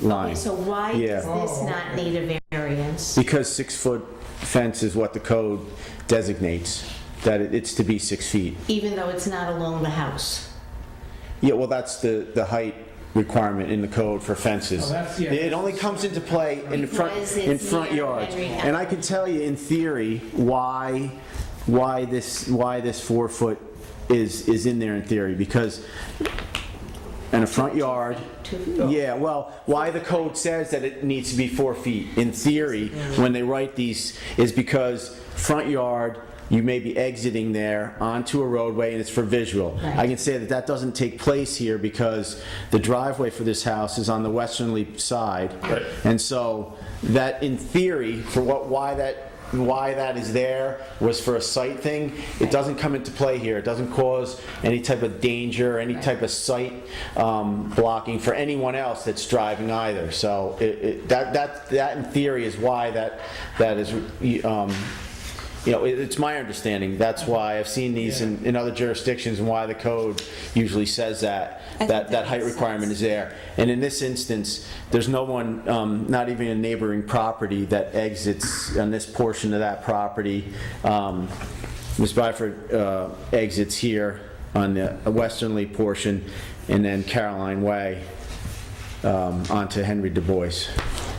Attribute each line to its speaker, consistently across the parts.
Speaker 1: line.
Speaker 2: So why
Speaker 1: Yeah.
Speaker 2: does
Speaker 3: Oh.
Speaker 2: this not need a variance?
Speaker 1: Because six-foot fence is what the code designates, that it- it's to be six feet.
Speaker 2: Even though it's not along the house?
Speaker 1: Yeah, well, that's the, the height requirement in the code for fences.
Speaker 3: Oh, that's- yeah.
Speaker 1: It only comes into play in the front,
Speaker 2: Because
Speaker 1: in
Speaker 2: it's
Speaker 1: front
Speaker 2: near
Speaker 1: yards.
Speaker 2: Henry
Speaker 1: And I can tell you in theory why, why this, why this four foot is, is in there in theory, because in a front yard,
Speaker 2: Two-
Speaker 1: yeah, well, why the code says that it needs to be four feet, in theory, when they write these, is because front yard, you may be exiting there onto a roadway and it's for visual. I
Speaker 2: Right.
Speaker 1: can say that that doesn't take place here because the driveway for this house is on the westernly side.
Speaker 4: Right.
Speaker 1: And so that, in theory, for what, why that, why that is there was for a site thing, it doesn't come into play here. It doesn't cause any type of danger, any type of site um, blocking for anyone else that's driving either. So it, it, that, that, that in theory is why that, that is, um, you know, it, it's my understanding. That's
Speaker 5: Uh-huh.
Speaker 1: why I've seen these in, in other jurisdictions and why the code usually says that,
Speaker 5: think
Speaker 1: that, that
Speaker 5: that
Speaker 1: height
Speaker 5: makes
Speaker 1: requirement
Speaker 5: sense.
Speaker 1: is there. And in this instance, there's no one, um, not even a neighboring property that exits on this portion of that property. Um, Ms. Byford, uh, exits here on the westernly portion and then Caroline Way, um, onto Henry DuBois.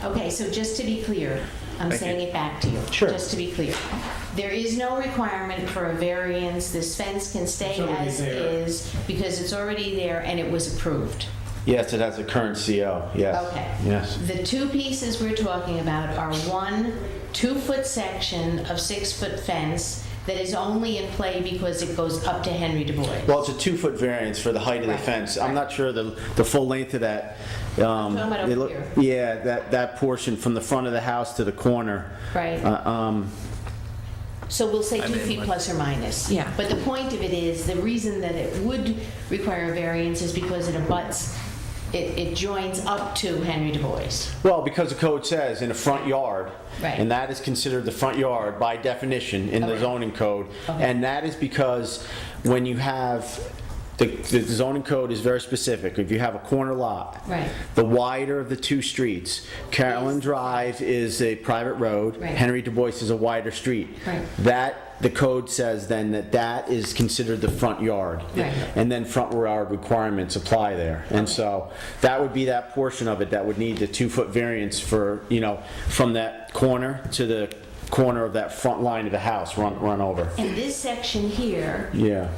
Speaker 2: Okay, so just to be clear, I'm saying it back to you.
Speaker 1: Sure.
Speaker 2: Just to be clear. There is no requirement for a variance. This fence can stay
Speaker 3: It's already
Speaker 2: as
Speaker 3: there.
Speaker 2: is because it's already there and it was approved.
Speaker 1: Yes, it has a current CO, yes.
Speaker 2: Okay.
Speaker 1: Yes.
Speaker 2: The two pieces we're talking about are one two-foot section of six-foot fence that is only in play because it goes up to Henry DuBois.
Speaker 1: Well, it's a two-foot variance for the height of the
Speaker 2: Right,
Speaker 1: fence. I'm
Speaker 2: right.
Speaker 1: not sure the, the full length of that. um,
Speaker 2: Talking about over
Speaker 1: they look-
Speaker 2: here.
Speaker 1: Yeah, that, that portion from the front of the house to the corner.
Speaker 2: Right.
Speaker 1: Uh, Um,
Speaker 2: So we'll say
Speaker 4: I
Speaker 2: two
Speaker 4: mean,
Speaker 2: feet
Speaker 4: like-
Speaker 2: plus or minus.
Speaker 5: Yeah.
Speaker 2: But the point of it is, the reason that it would require a variance is because it abuts, it, it joins up to Henry DuBois.
Speaker 1: well, because the code says in a front yard.
Speaker 2: Right.
Speaker 1: And that is considered the front yard by definition in the
Speaker 2: Okay.
Speaker 1: zoning code.
Speaker 2: Okay.
Speaker 1: And that is because when you have, the, the zoning code is very specific. If you have a corner lot.
Speaker 2: Right.
Speaker 1: The wider of the two streets. Carolyn Drive is a private road.
Speaker 2: Right.
Speaker 1: Henry Du Bois is a wider street.
Speaker 2: Right.
Speaker 1: That, the code says then that that is considered the front yard.
Speaker 2: Right.
Speaker 1: And then front yard requirements apply there. And so that would be that portion of it that would need the two-foot variance for, you know, from that corner to the corner of that front line of the house, run, run over.
Speaker 2: And this section here,
Speaker 1: Yeah,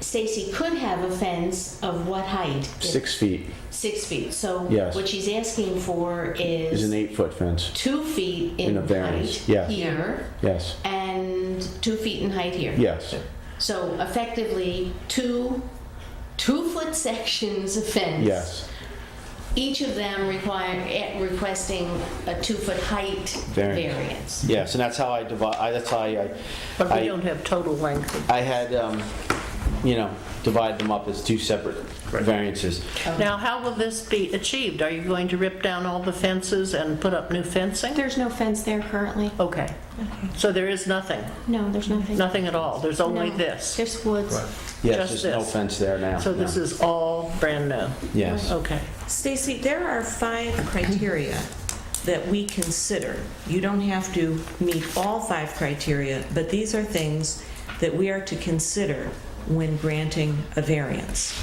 Speaker 2: Stacy could have a fence of what height?
Speaker 1: six feet
Speaker 2: Six feet. So
Speaker 1: Yes.
Speaker 2: what she's asking for
Speaker 1: is an
Speaker 2: is
Speaker 1: eight-foot fence,
Speaker 2: two feet in
Speaker 1: In a
Speaker 2: height
Speaker 1: variance, yeah.
Speaker 2: here
Speaker 1: yes,
Speaker 2: and two feet in height here.
Speaker 1: yes.
Speaker 2: So effectively, two, two-foot sections of fence.
Speaker 1: Yes.
Speaker 2: Each of them require, eh, requesting a two-foot height
Speaker 1: Variance.
Speaker 2: variance.
Speaker 1: Yes, and that's how I divide, I- that's how I.
Speaker 6: But
Speaker 1: I-
Speaker 6: we don't have total length.
Speaker 1: I had, um, you know, divided them up as two separate variances.
Speaker 6: Now, how will this be achieved? Are you going to rip down all the fences and put up new fencing?
Speaker 5: There's no fence there currently.
Speaker 6: Okay, so there is nothing,
Speaker 5: No, there's nothing.
Speaker 6: nothing at all, there's only
Speaker 5: No.
Speaker 6: this.
Speaker 5: There's woods.
Speaker 1: Yes,
Speaker 6: Just
Speaker 1: there's no
Speaker 6: this.
Speaker 1: fence there now.
Speaker 6: So this
Speaker 1: no.
Speaker 6: is all brand new?
Speaker 1: Yes.
Speaker 6: Okay.
Speaker 7: Stacy, there are five criteria that we consider. You don't have to meet all five criteria, but these are things that we are to consider when granting a variance.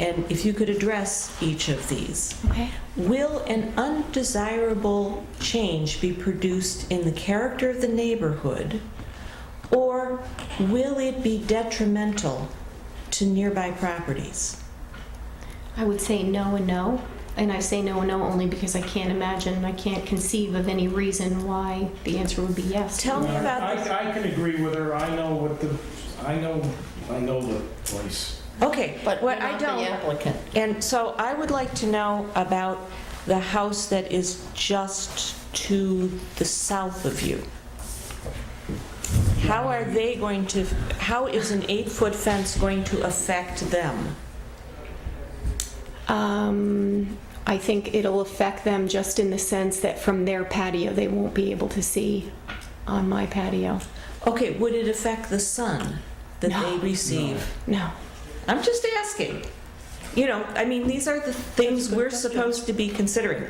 Speaker 7: And if you could address each of these.
Speaker 5: Okay.
Speaker 7: Will an undesirable change be produced in the character of the neighborhood, or will it be detrimental to nearby properties?
Speaker 5: I would say no and no. And I say no and no only because I can't imagine, I can't conceive of any reason why the answer would be yes.
Speaker 7: Tell me about this.
Speaker 3: Uh, I, I can agree with her, I know what the, I know, I know the place.
Speaker 7: Okay,
Speaker 6: But
Speaker 7: what
Speaker 6: you're
Speaker 7: I
Speaker 6: not the
Speaker 7: don't,
Speaker 6: applicant.
Speaker 7: and so I would like to know about the house that is just to the south of you. How are they going to, how is an eight-foot fence going to affect them?
Speaker 5: Um, I think it'll affect them just in the sense that from their patio, they won't be able to see on my patio.
Speaker 7: Okay, would it affect the sun that they
Speaker 5: No.
Speaker 7: receive?
Speaker 5: No.
Speaker 7: I'm just asking. You know, I mean, these are the things we're supposed to be considering.